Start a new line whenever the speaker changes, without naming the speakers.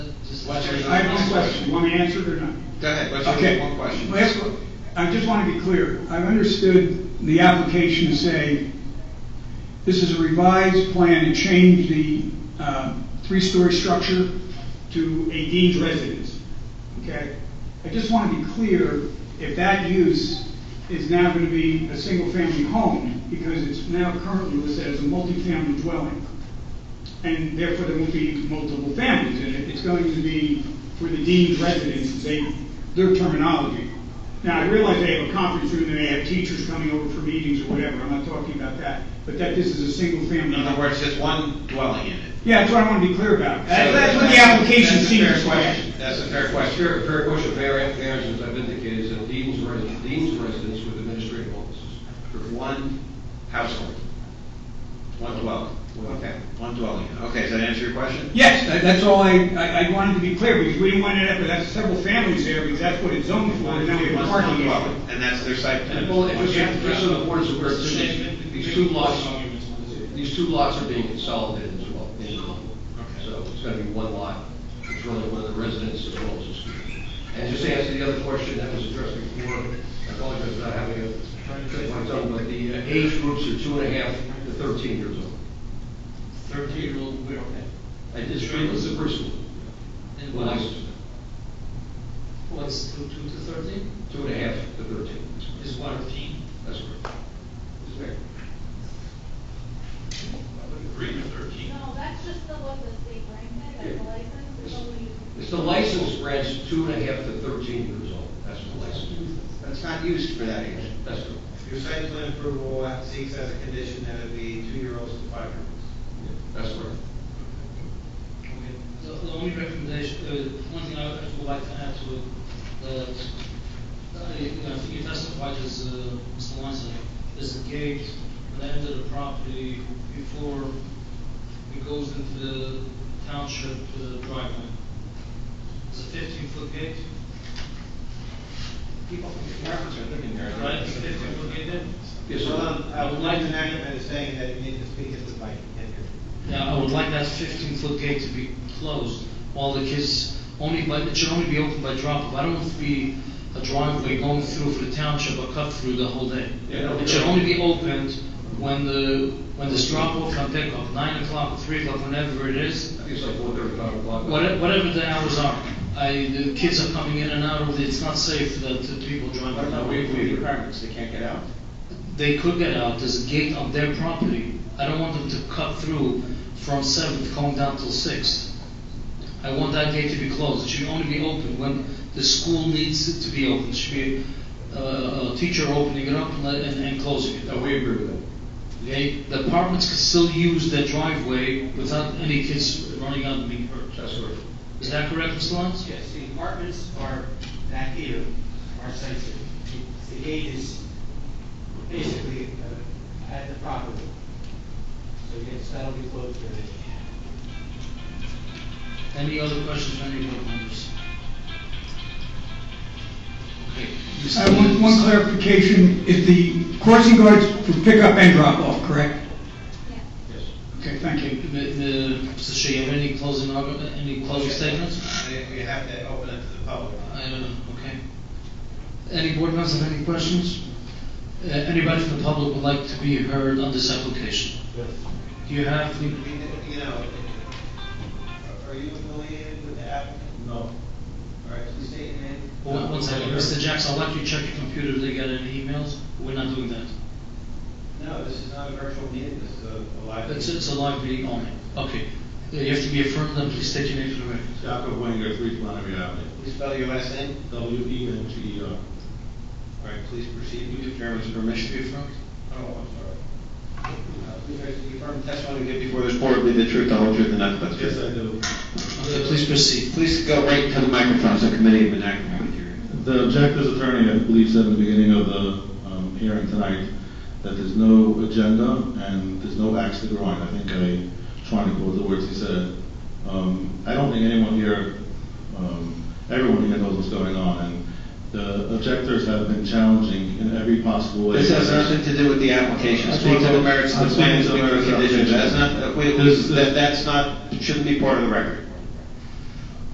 Let's read
I have
one
one question, you want me to answer it or not?
Go ahead, let's
Okay.
read one question.
Last one. I just want to be clear. I understood the application to say, this is a revised plan to change the uh, three-story structure to a deemed residence. Okay? I just want to be clear if that use is now going to be a single-family home because it's now currently listed as a multifamily dwelling. And therefore, there won't be multiple families in it. It's going to be for the deemed residents, they, their terminology. Now, I realize they have a conference room, and they have teachers coming over for meetings or whatever, I'm not talking about that, but that this is a single
In
family.
other words, there's one dwelling in it.
Yeah, that's what I want to be clear about. That-
So
That's what the
that's-
application
that's a fair
seems
question.
like.
That's a fair question.
Fair, fair question, fair answer, as I've indicated, is that dean's residence, dean's residence with administrative offices.
For one household, one dwelling. Okay, one dwelling. Okay, does that answer your question?
Yes, that- that's all I, I I wanted to be clear, because we didn't want it up, but that's several families there, because that's what it's zoned for, and now we have a
One
parking issue.
dwelling, And that's their site plan.
And well, if it's, just so the board is aware, too, these two lots, these two lots are being consolidated as well. in Columbia.
Okay.
So it's gonna be one lot, it's really one of the residents as well as the school. And just to answer the other question that was addressed before, I apologize for not having a, clip on my tongue, but the uh, age groups are two and a half to thirteen years old.
Thirteen-year-old widow.
I did stream as a preschool,
And
well,
what's,
licensed,
what's two, two to thirteen?
two and a half to thirteen,
Is one of teen?
that's correct. Is that-
No, that's just the what the state granted, that's the license, it's only.
It's the license grants two and a half to thirteen years old, that's the license,
That's not used for that age.
that's correct.
Your site plan approval seeks as a condition that it be two-year-olds to five-year-olds.
That's correct.
The, the only recommendation, uh, one thing I would would like to add to it, that, uh, you know, I think you testified as, uh, Mr. Lanza, there's a gate that entered the property before it goes into the township uh, driveway. It's a fifteen-foot gate. Right, it's a fifteen-foot gate there?
Yes,
Well,
sir.
um, I would like to recommend is saying that you need to speak at the mic. Thank you.
Yeah, I would like that fifteen foot gate to be closed while the kids, only by, it should only be open by drop off. I don't want it to be a driveway going through for the township or cut through the whole day.
Yeah, no,
It should only be opened when the, when this drop off and pick up, nine o'clock, three o'clock, whenever it is,
I think it's like four thirty, five o'clock.
whate- whatever the hours are. I, the kids are coming in and out of it, it's not safe that the people drive.
What about
around.
we, we requirements, they can't get out?
They could get out, there's a gate on their property. I don't want them to cut through from Seventh going down till Sixth. I want that gate to be closed, it should only be open when the school needs it to be open. It should be uh, a teacher opening it up and, let- and and closing it.
No, we agree with that.
Okay, the apartments can still use their driveway without any kids running out and being hurt.
That's correct.
Is that correct, Mr. Lyons?
Yes, the apartments are back here, our sites, are- the gate is basically uh, at the property. So yes, that'll be closed during the day.
Any other questions, from any board members? Okay.
I want one clarification, is the crossing guards for pickup and drop-off, correct?
Yeah.
Yes.
Okay, thank you.
M- m- Mr. Shea, you have any closing, argu- any closing statements?
You have to open it to the public.
I don't
Um,
know, okay. Any board members have any questions? Uh, Anybody from the public would like to be heard on this application? Do you have,
I
the-
mean, You know, are you affiliated with the applicant? No. All right, so state your name.
one one second, Mr. Jackson, I'd like you to check your computer, did they get any emails? We're not doing that.
No, this is not a virtual meeting, this is a a live.
It's, it's a live meeting only. Okay. Uh, You have to be affirmed, and please state your name for the record.
Jacob Wenger, three Flannery Avenue,
Please spell your last name.
W E N G E R.
All right, please proceed.
Give chairman's permission to be affirmed?
Oh, I'm sorry. Uh, Please confirm
Testimony you give before this
This
board.
board be the truth, the whole truth, and nothing but the Yes, truth. I do.
Uh,
Okay, please proceed.
Please go right to the microphone, so the committee of enactment here.
The objector's attorney, I believe, said in the beginning of the um, hearing tonight that there's no agenda and there's no axe to grind. I think I, trying to quote the words he said. Um, I don't think anyone here, um, everyone here knows what's going on, and the objectors have been challenging in every possible way.
This has nothing to do with the application,
I'm
speak to the merits of
I'm
the plan,
speaking
speak
to
to
the
the
merits of the
conditions, that's
application.
not, uh, we- we-
This is-
that- that's not, shouldn't be part of the record.